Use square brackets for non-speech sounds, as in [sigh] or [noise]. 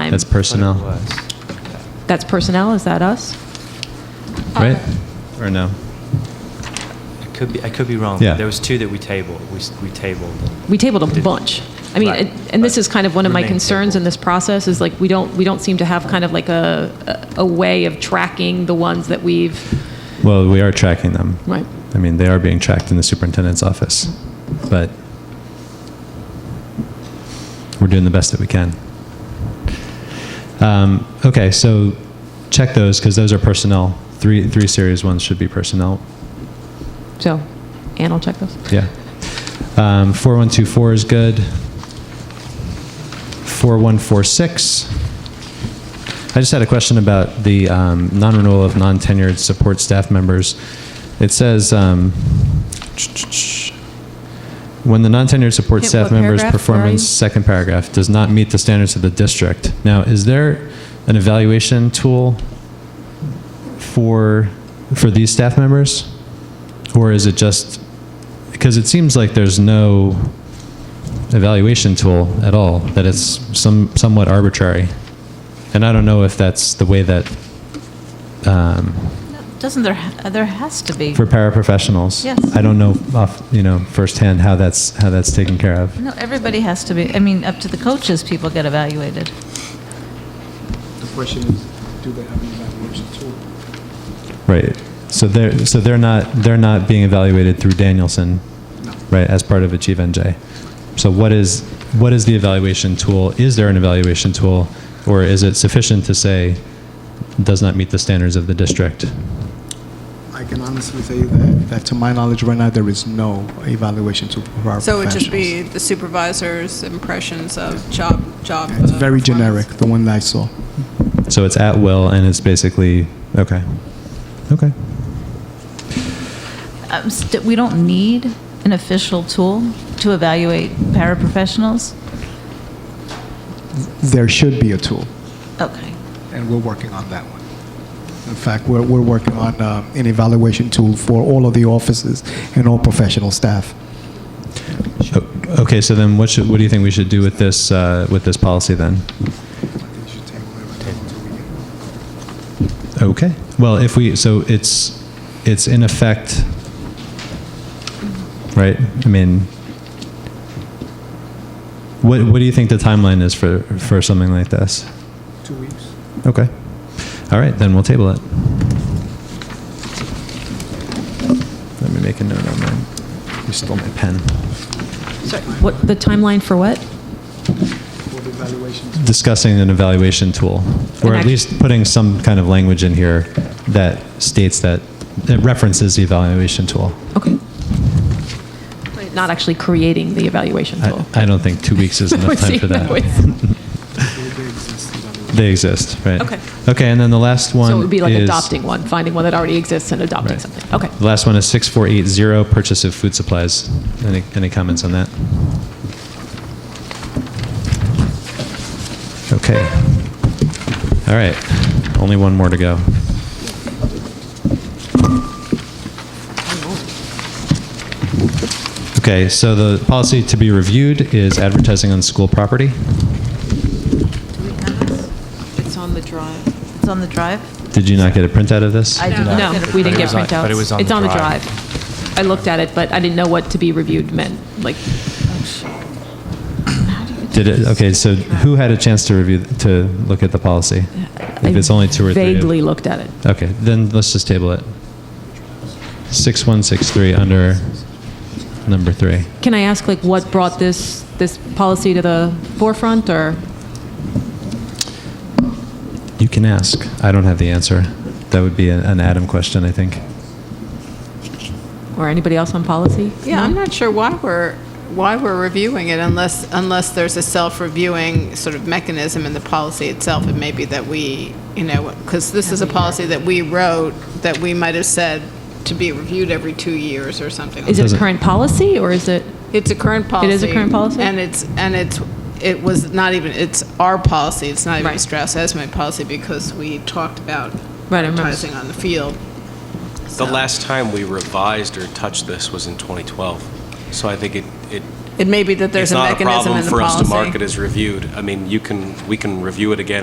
time. That's personnel. But it was. That's personnel, is that us? right? Or no? I could be, I could be wrong. Yeah. There was two that we tabled, we, s- we tabled. We tabled a Did- bunch. I mean, Right, and and this right. is kind of one of my Remain concerns in tabled. this process, is like, we don't, we don't seem to have kind of like a, a a way of tracking the ones that we've, Well, we are tracking them. Right. I mean, they are being tracked in the superintendent's office, but we're doing the best that we can. Um, okay, so check those because those are personnel. Three, three series ones should be personnel. so, Ann will check those. Yeah. Um, 4124 is good. 4146. I just had a question about the um, non-renewal of non-tenured support staff members. It says, um, when the non-tenured support Yeah, staff what member's paragraph? Where are performance, you? second paragraph, does not meet the standards of the district. Now, is there an evaluation tool for, for these staff members? Or is it just, because it seems like there's no evaluation tool at all, that it's some, somewhat arbitrary. And I don't know if that's the way that, um, Doesn't there, ha- there has to be. for paraprofessionals. Yes. I don't know off, you know, firsthand how that's, how that's taken care of. No, everybody has to be, I mean, up to the coaches, people get evaluated. The question is, do they have an evaluation tool? Right. So they're, so they're not, they're not being evaluated through Danielson, right, as part of Achieve NJ. So what is, what is the evaluation tool? Is there an evaluation tool? Or is it sufficient to say, does not meet the standards of the district? I can honestly say that, that to my knowledge right now, there is no evaluation tool for our So it would just be professionals. the supervisor's impressions of job, job. It's uh, very performance. generic, the one that I saw. So it's at will and it's basically, okay. Okay. Um, st- We don't need an official tool to evaluate paraprofessionals? There should be a tool, Okay. and we're working on that one. In fact, we're, we're working on uh, an evaluation tool for all of the offices and all professional staff. O- Okay, so then what should, what do you think we should do with this, uh, with this policy then? Okay. Well, if we, so it's, it's in effect, right? I mean, what, what do you think the timeline is for, for something like this? Two weeks. Okay. All right, then we'll table it. Let me make a note on mine. You stole my pen. What, the timeline for what? For the evaluation Discussing an evaluation tool, or An at act- least putting some kind of language in here that states that, that references the evaluation tool. Okay. Not actually creating the evaluation tool. I, I don't think two [laughs] weeks is enough time for that. They exist, right? Okay. Okay, and then the last one So it would be like is- adopting one, finding one that already exists and adopting Right. something. Okay. The last one is 6480, purchase of food supplies. Any, any comments on that? Okay. All right, only one more to go. Okay, so the policy to be reviewed is advertising on school property. It's on the drive. It's on the drive? Did you not get a printout of this? I did not No, get a we didn't But it get was on- printouts. but it was on It's the on the drive. drive. I looked at it, but I didn't know what to be reviewed meant, like, Did it, okay, so who had a chance to review, to look at the policy? If it's only two or three. of- Uh, vaguely looked at it. Okay, then let's just table it. 6163 under number three. Can I ask, like, what brought this, this policy to the forefront, or? You can ask. I don't have the answer. That would be an- an Adam question, I think. or anybody else on policy? Yeah, I'm not sure why we're, why we're reviewing it unless, unless there's a self-reviewing sort of mechanism in the policy itself. It may be that we, you know, because this is a policy that we wrote that we might have said to be reviewed every two years or something. Is it a Doesn't- current policy, or is it, It's a current policy. It is a current policy? And it's, and it's, it was not even, it's our policy, it's not even Right. Strauss Esme policy because we talked about Right, I remember. advertising on the field. The last time we revised or touched this was in 2012. So I think it, it, It may be that there's it's a not a mechanism problem in the for us policy. to mark it as reviewed. I mean, you can, we can review it again